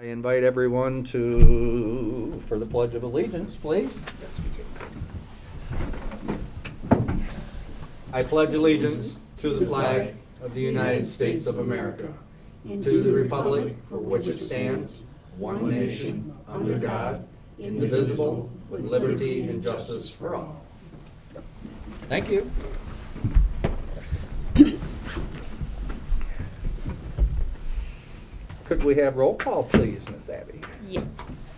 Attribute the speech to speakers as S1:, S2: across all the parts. S1: I invite everyone to, for the Pledge of Allegiance, please. I pledge allegiance to the flag of the United States of America, to the republic for which it stands, one nation, under God, indivisible, with liberty and justice for all. Thank you. Could we have roll call, please, Miss Abby?
S2: Yes.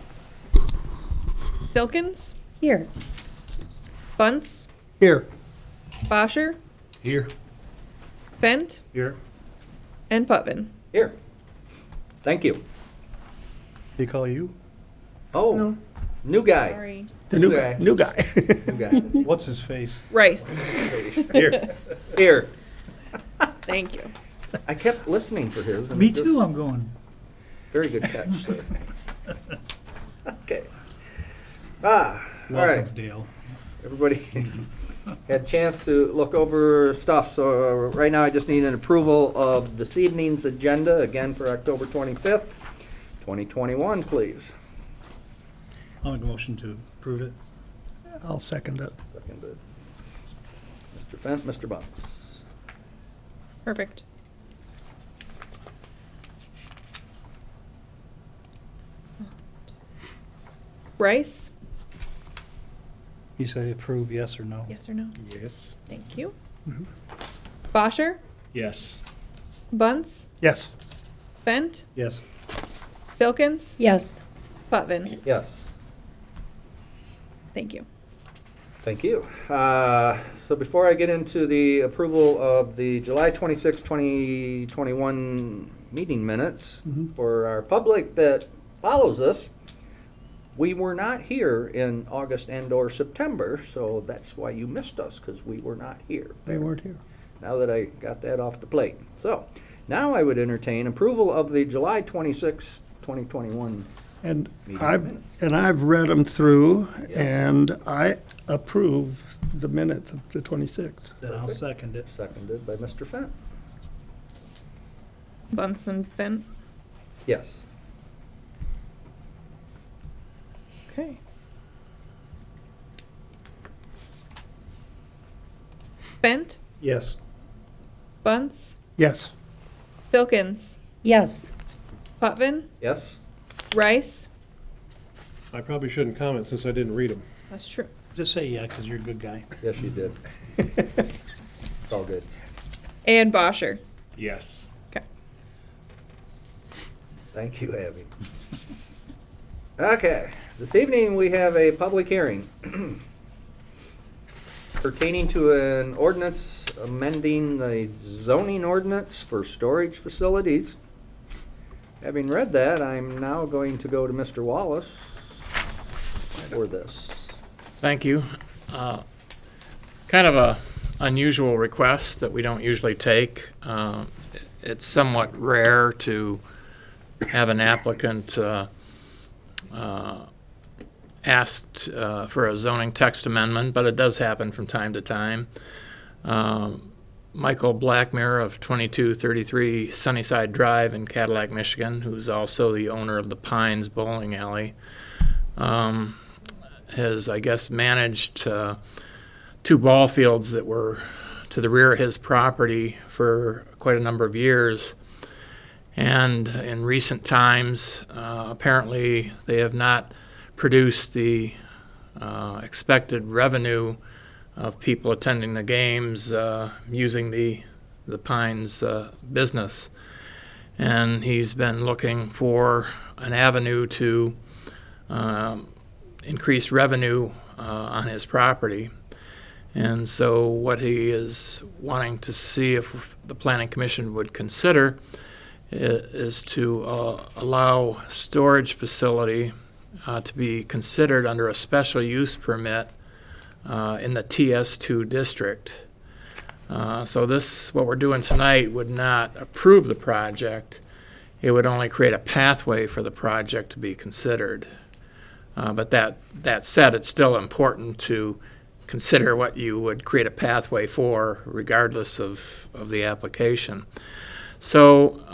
S2: Silkins,
S3: Here.
S2: Bunce,
S4: Here.
S2: Bosher,
S4: Here.
S2: Fent,
S4: Here.
S2: and Putvin.
S1: Here. Thank you.
S4: They call you?
S1: Oh,
S4: No.
S1: new guy.
S2: Sorry.
S4: The new
S1: New
S4: guy.
S1: guy.
S4: New guy.
S1: New guy.
S4: What's his face?
S2: Rice.
S4: Here.
S1: Here.
S2: Thank you.
S1: I kept listening for his. and
S5: Me
S1: just-
S5: too, I'm going.
S1: Very good catch, sir. Okay. Ah, all right.
S5: Welcome, Dale.
S1: Everybody had a chance to look over stuff, so uh, right now I just need an approval of this evening's agenda, again for October 25th, 2021, please.
S5: I'll make a motion to approve it.
S4: I'll second it.
S1: Seconded. Mr. Fent, Mr. Bunce.
S2: Perfect. Rice?
S4: You say approve, yes or no?
S2: Yes or no?
S4: Yes.
S2: Thank you.
S4: Mhm.
S2: Bosher,
S5: Yes.
S2: Bunce,
S4: Yes.
S2: Fent,
S4: Yes.
S2: Silkins,
S3: Yes.
S2: Putvin.
S1: Yes.
S2: Thank you.
S1: Thank you. Uh, So before I get into the approval of the July 26, 2021 meeting minutes,
S4: Mhm.
S1: for our public that follows us, we were not here in August and/or September, so that's why you missed us, because we were not here.
S4: They weren't here.
S1: Now that I got that off the plate. So now I would entertain approval of the July 26, 2021.
S4: And
S1: Meeting
S4: I've,
S1: minutes.
S4: and I've read them through
S1: Yes.
S4: and I approve the minutes of the twenty-sixth.
S5: Then I'll second it.
S1: Seconded by Mr. Fent.
S2: Bunce and Fent.
S1: Yes.
S2: Okay. Fent,
S4: Yes.
S2: Bunce,
S4: Yes.
S2: Silkins,
S3: Yes.
S2: Putvin,
S1: Yes?
S2: Rice.
S6: I probably shouldn't comment since I didn't read them.
S2: That's true.
S5: Just say yeah, because you're a good guy.
S1: Yes, you did. It's all good.
S2: And Bosher.
S6: Yes.
S2: Okay.
S1: Thank you, Abby. Okay, this evening we have a public hearing pertaining to an ordinance amending the zoning ordinance for storage facilities. Having read that, I'm now going to go to Mr. Wallace for this.
S7: Thank you. Uh, Kind of a unusual request that we don't usually take. Uh, it- It's somewhat rare to have an applicant uh, uh, asked uh, for a zoning text amendment, but it does happen from time to time. Um, Michael Blackmire of 2233 Sunnyside Drive in Cadillac, Michigan, who's also the owner of the Pines Bowling Alley, um, has, I guess, managed uh, two ball fields that were to the rear of his property for quite a number of years. And in recent times, uh, apparently, they have not produced the uh, expected revenue of people attending the games uh, using the the Pines uh, business. And he's been looking for an avenue to um, increase revenue uh, on his property. And so, what he is wanting to see if the Planning Commission would consider i- is to uh, allow storage facility uh, to be considered under a special use permit uh, in the TS2 district. Uh, so, this, what we're doing tonight, would not approve the project. It would only create a pathway for the project to be considered. Uh, But that, that said, it's still important to consider what you would create a pathway for regardless of, of the application. So